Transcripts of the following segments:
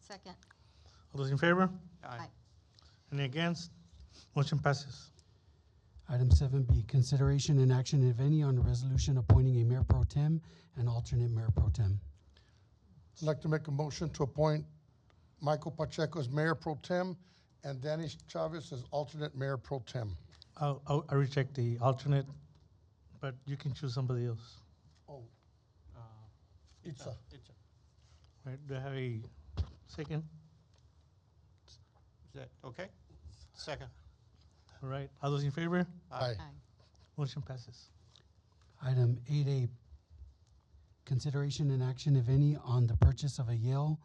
Second. All those in favor? Aye. Any against? Motion passes. Item seven B, consideration and action, if any, on a resolution appointing a mayor pro tem and alternate mayor pro tem. I'd like to make a motion to appoint Michael Pacheco as mayor pro tem and Danny Chavez as alternate mayor pro tem. I'll, I'll, I reject the alternate, but you can choose somebody else. Oh, Itza. Right, do I have a second? Is that okay? Second. All right, all those in favor? Aye. Motion passes. Item eight A, consideration and action, if any, on the purchase of a Yale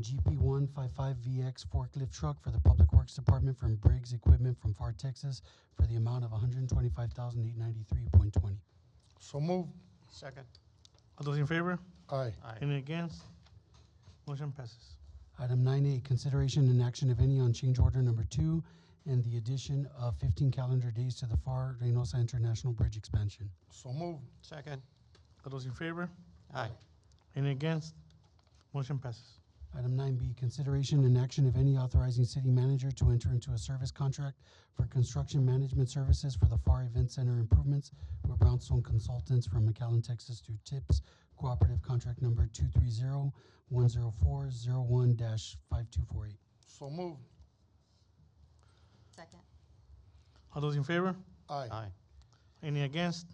GP one five five VX forklift truck for the Public Works Department from Briggs Equipment from Far Texas for the amount of one hundred and twenty-five thousand eight ninety-three point twenty. So move. Second. All those in favor? Aye. Aye. Any against? Motion passes. Item nine A, consideration and action, if any, on change order number two and the addition of fifteen calendar days to the FAR Reynosa International Bridge expansion. So move. Second. All those in favor? Aye. Any against? Motion passes. Item nine B, consideration and action, if any, authorizing city manager to enter into a service contract for construction management services for the FAR Event Center improvements with Brownstone Consultants from McAllen, Texas to TIPS Cooperative Contract Number two three zero one zero four zero one dash five two four eight. So move. Second. All those in favor? Aye. Aye. Any against?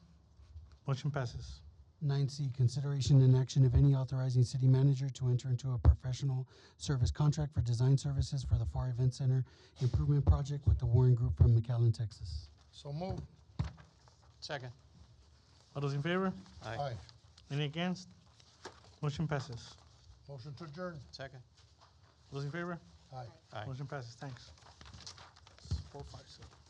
Motion passes. Nine C, consideration and action, if any, authorizing city manager to enter into a professional service contract for design services for the FAR Event Center improvement project with the Warren Group from McAllen, Texas. So move. Second. All those in favor? Aye. Aye. Any against? Motion passes. Motion to adjourn. Second. Those in favor? Aye. Aye. Motion passes. Thanks. Four, five, seven.